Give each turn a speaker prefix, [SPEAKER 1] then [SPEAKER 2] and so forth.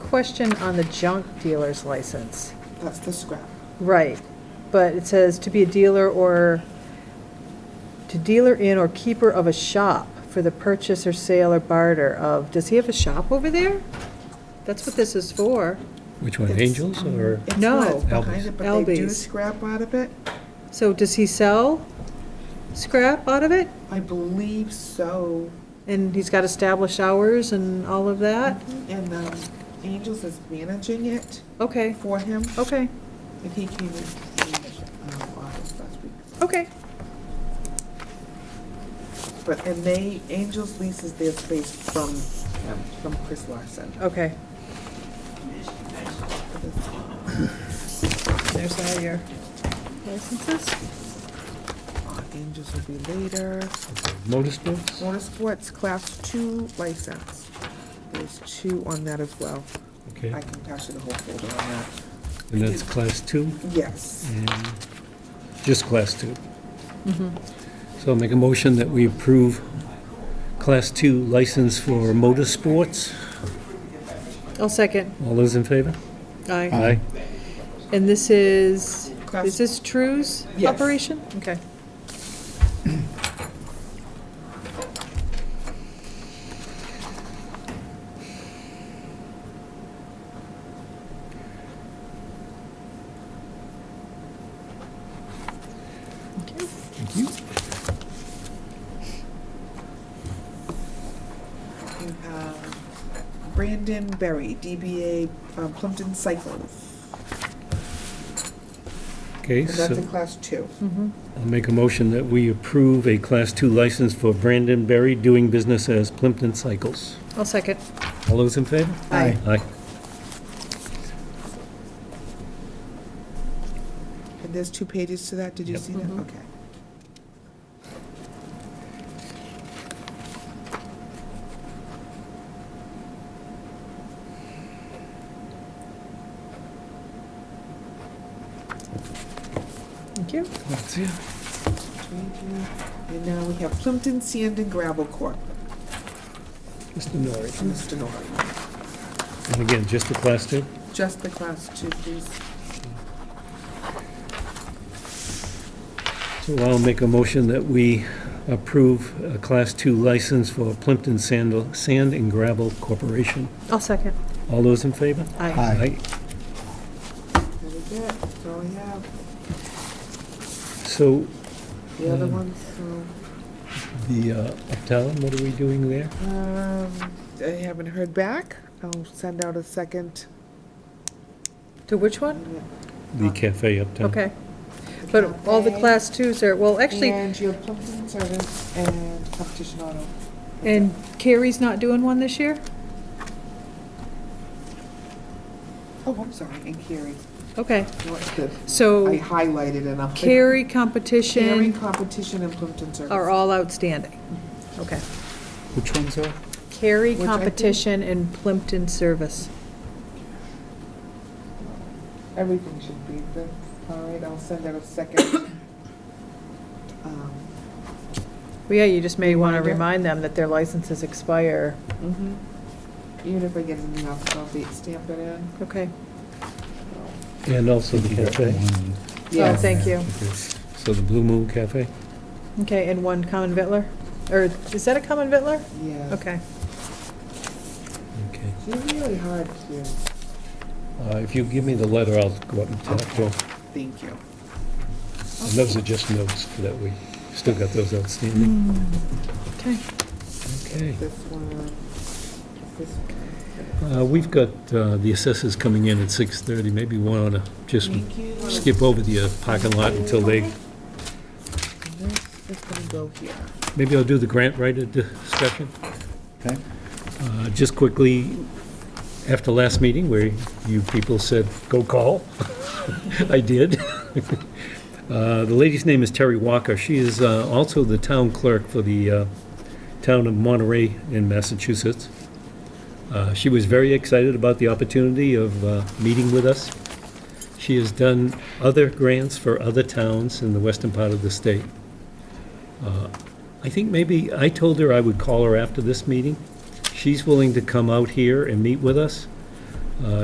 [SPEAKER 1] question on the junk dealer's license.
[SPEAKER 2] That's the scrap.
[SPEAKER 1] Right, but it says to be a dealer or, to dealer in or keeper of a shop for the purchase or sale or barter of, does he have a shop over there? That's what this is for.
[SPEAKER 3] Which one,
[SPEAKER 2] It's, um,
[SPEAKER 3] Angels or?
[SPEAKER 2] It's
[SPEAKER 1] No.
[SPEAKER 2] not, it's behind it, but they do
[SPEAKER 1] Albies.
[SPEAKER 2] scrap out of it.
[SPEAKER 1] So does he sell scrap out of it?
[SPEAKER 2] I believe so.
[SPEAKER 1] And he's got established hours and all of that?
[SPEAKER 2] And um, Angels is managing it
[SPEAKER 1] Okay,
[SPEAKER 2] for him.
[SPEAKER 1] okay,
[SPEAKER 2] And he came in the um, office last week.
[SPEAKER 1] okay.
[SPEAKER 2] But, and they, Angels leases their space from him, from Chris Larson.
[SPEAKER 1] Okay, Oh.
[SPEAKER 2] for this.
[SPEAKER 1] there's all your licenses.
[SPEAKER 2] Uh, Angels will be later.
[SPEAKER 3] Motorsports?
[SPEAKER 2] Motorsports Class Two license. There's two on that as well.
[SPEAKER 3] Okay,
[SPEAKER 2] I can pass you the whole folder on that.
[SPEAKER 3] and that's class two,
[SPEAKER 2] Yes.
[SPEAKER 3] and just class two. Mm-hmm. So I'll make a motion that we approve class two license for motorsports.
[SPEAKER 1] I'll second.
[SPEAKER 3] All those in favor?
[SPEAKER 1] Aye.
[SPEAKER 3] Aye.
[SPEAKER 1] And this is,
[SPEAKER 2] Class-
[SPEAKER 1] is this True's
[SPEAKER 2] Yes.
[SPEAKER 1] operation? Okay. Okay.
[SPEAKER 3] Thank you.
[SPEAKER 2] You have Brandon Berry, DBA um, Plimpton Cycles.
[SPEAKER 3] Okay,
[SPEAKER 2] And that's in
[SPEAKER 3] so
[SPEAKER 2] Class Two.
[SPEAKER 1] Mm-hmm.
[SPEAKER 3] I'll make a motion that we approve a class two license for Brandon Berry doing business as Plimpton Cycles.
[SPEAKER 1] I'll second.
[SPEAKER 3] All those in favor?
[SPEAKER 1] Aye.
[SPEAKER 3] Aye.
[SPEAKER 2] And there's two pages to that. Did you
[SPEAKER 3] Yep.
[SPEAKER 2] see
[SPEAKER 1] Mm-hmm.
[SPEAKER 2] that? Okay.
[SPEAKER 1] Thank you.
[SPEAKER 3] That's it.
[SPEAKER 2] And now we have Plimpton Sand and Gravel Corp.
[SPEAKER 3] Mr. Norrie.
[SPEAKER 2] Mr. Norrie.
[SPEAKER 3] And again, just the class two?
[SPEAKER 2] Just the Class Two, please.
[SPEAKER 3] So I'll make a motion that we approve a Class II license for Plimpton Sand Sand and Gravel Corporation.
[SPEAKER 1] I'll second.
[SPEAKER 3] All those in favor?
[SPEAKER 1] Aye.
[SPEAKER 2] That is it. That's all I have.
[SPEAKER 3] So
[SPEAKER 2] The other
[SPEAKER 3] Um,
[SPEAKER 2] ones, so.
[SPEAKER 3] the uh, uptown, what are we doing there?
[SPEAKER 2] Um, I haven't heard back. I'll send out a second.
[SPEAKER 1] To which one?
[SPEAKER 3] The cafe uptown.
[SPEAKER 1] Okay. But all the class twos are, well, actually,
[SPEAKER 2] And your Plimpton Service and Competition Auto.
[SPEAKER 1] and Carrie's not doing one this year?
[SPEAKER 2] Oh, I'm sorry, and Carrie.
[SPEAKER 1] Okay,
[SPEAKER 2] No, it's good. I
[SPEAKER 1] so
[SPEAKER 2] highlighted and I'm.
[SPEAKER 1] Carrie
[SPEAKER 2] Carrie,
[SPEAKER 1] competition
[SPEAKER 2] Competition, and Plimpton Service.
[SPEAKER 1] are all outstanding. Okay.
[SPEAKER 3] Which ones are?
[SPEAKER 1] Carrie
[SPEAKER 2] Which I think-
[SPEAKER 1] competition and Plimpton service.
[SPEAKER 2] Everything should be, there. all right, I'll send out a second. Um,
[SPEAKER 1] Well, yeah, you just may want to
[SPEAKER 2] Reminder.
[SPEAKER 1] remind them that their licenses expire.
[SPEAKER 2] mhm.
[SPEAKER 1] Mm-hmm.
[SPEAKER 2] Even if I get it in the office, I'll be- stamp it in.
[SPEAKER 1] Okay.
[SPEAKER 3] And also the cafe.
[SPEAKER 1] Oh,
[SPEAKER 2] Yes.
[SPEAKER 1] thank you.
[SPEAKER 3] So the Blue Moon Cafe.
[SPEAKER 1] Okay, and one common vittler? Or is that a common vittler?
[SPEAKER 2] Yes.
[SPEAKER 1] Okay.
[SPEAKER 3] Okay.
[SPEAKER 2] She's really hard to,
[SPEAKER 3] Uh, If you give me the letter, I'll go up and talk to them.
[SPEAKER 2] thank you.
[SPEAKER 3] And those are just notes that we still got those outstanding.
[SPEAKER 1] Mm. Okay.
[SPEAKER 3] Okay.
[SPEAKER 2] This one, this one.
[SPEAKER 3] Uh, We've got uh, the assessors coming in at 6:30, maybe we want to just
[SPEAKER 2] Thank you.
[SPEAKER 3] skip over the uh, parking lot until they,
[SPEAKER 2] And This is gonna go here.
[SPEAKER 3] maybe I'll do the grant writer discussion.
[SPEAKER 4] Okay.
[SPEAKER 3] Uh, Just quickly, after last meeting where you people said, "Go call," I did. Uh, The lady's name is Terry Walker. She is uh, also the town clerk for the uh, town of Monterey in Massachusetts. Uh, She was very excited about the opportunity of uh, meeting with us. She has done other grants for other towns in the western part of the state. Uh, I think maybe, I told her I would call her after this meeting. She's willing to come out here and meet with us. Uh,